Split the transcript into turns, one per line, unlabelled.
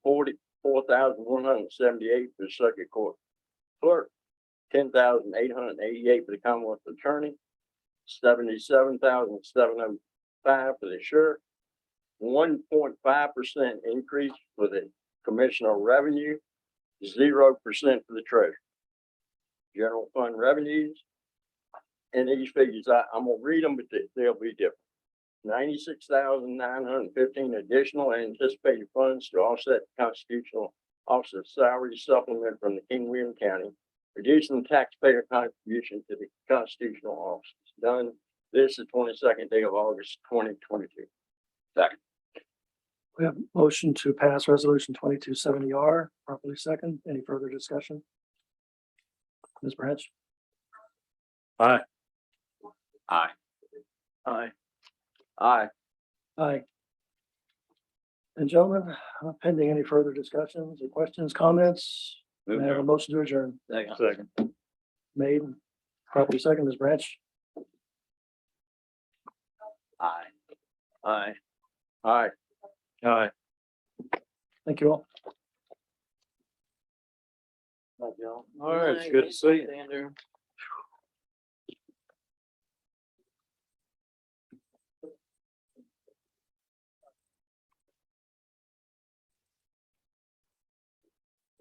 thousand one hundred and seventy-eight for the circuit court clerk, ten thousand eight hundred and eighty-eight for the Commonwealth Attorney, seventy-seven thousand seven hundred five for the sheriff, one point five percent increase for the commissioner of revenue, zero percent for the treasurer. General fund revenues, and these figures, I, I'm gonna read them, but they- they'll be different. Ninety-six thousand nine hundred and fifteen additional anticipated funds to offset constitutional officer salary supplement from the King William County, reducing taxpayer contribution to the constitutional office. Done this the twenty-second day of August, twenty twenty-two.
We have motion to pass resolution twenty-two seventy R, properly second. Any further discussion? Ms. Branch?
Aye.
Aye.
Aye.
Aye.
Aye. And gentlemen, uh, pending any further discussions or questions, comments, may I have a motion to adjourn
Second.
made, properly second, Ms. Branch?
Aye.
Aye. Aye.
Aye. Thank you all.
All
right, it's good to see you.